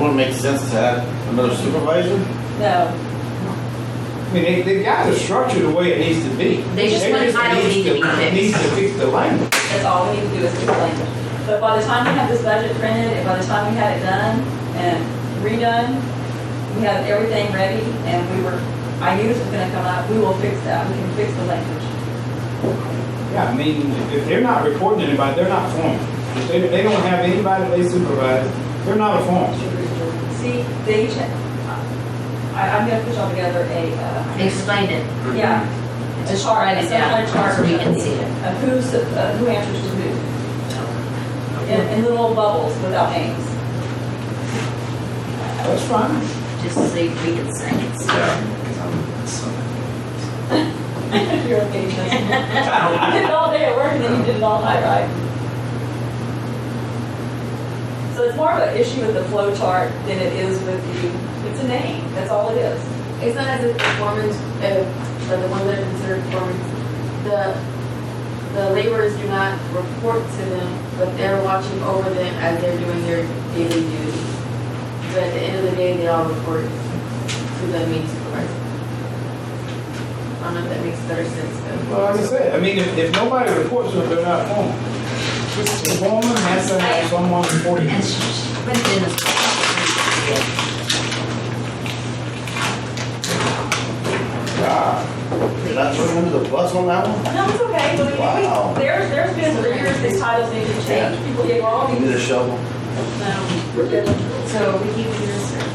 wouldn't make sense to have another supervisor? No, I mean, they, they got the structure the way it needs to be. They just want title need to be fixed. Needs to fix the language. that's all we need to do is fix language. But by the time we have this budget printed, and by the time we had it done and redone, we have everything ready, and we were, I knew this was gonna come out, we will fix that, we can fix the language. Yeah, I mean, if they're not reporting to anybody, they're not formed. If they, they don't have anybody they supervise, they're not a form. See, they, each- I, I'm gonna put all together a, uh, Explain it. yeah, a Just chart, write some it kind down of chart. so we can see it. Of who's, uh, who answers to who, in, in little bubbles without names. That's fine. Just so we can see it. You're a patient. You did it all day at work and then you did it all night, right? So it's more of an issue with the flow chart than it is with the, it's a name, that's all it is. It's not as if performance, uh, the one that is considered performance, the, the laborers do not report to them, but they're watching over them as they're doing their daily duties. But at the end of the day, they all report to the main supervisor. I don't know if that makes better sense though. Well, like I said, I mean, if, if nobody reports to them, they're not formed. The foreman has to have someone reporting. And sh- sh- put it in the. God, did I throw you under the bus on that one? No, it's okay, but Wow. we, there's, there's been for years these titles need to change, people get all You need these. a shovel? Um, So we keep this or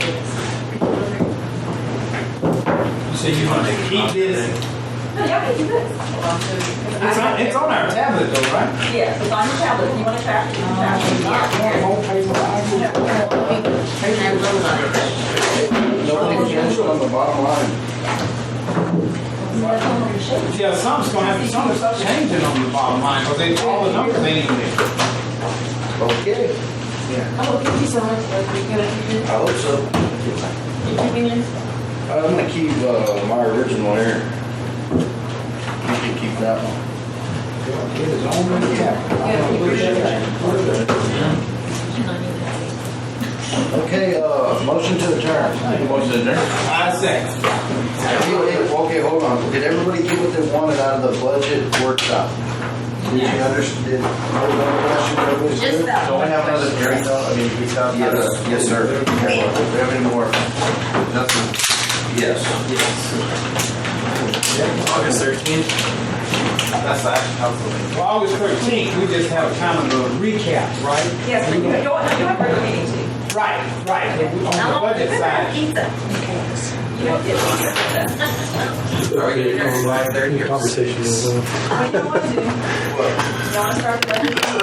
So you want to keep this? No, y'all can do this. It's on, it's on our tablet though, right? Yes, it's on your tablet, if you wanna track it, you can track it. If not, you One whole page of language. No, it's on the bottom line. Yeah, some's gonna have, some stuff changing on the bottom line, because they, all the numbers ain't even there. Okay, Oh, thank you so much, Leslie. You're gonna keep I it? hope so. You keeping it? I'm gonna keep, uh, my original here. You can keep that one. It is on the tablet. I don't believe that. Okay, uh, motion to adjourn. Motion to adjourn? I second. Okay, hold on. Did everybody get what they wanted out of the budget workshop? Did you understand? Just that Don't we have one another question. hearing though? I mean, we have. Yes, yes, sir. Do we have any more? Nothing? Yes. August 13th. That's the action council meeting. Well, August thirteenth, we just have kind of a recap, right? Yes, you, you you have regular meetings, you Right, right, but we- on the budget side. Pizza. you don't get. Are we gonna go live 30 or? conversation is. uh, What do you wanna do? You wanna start the regular?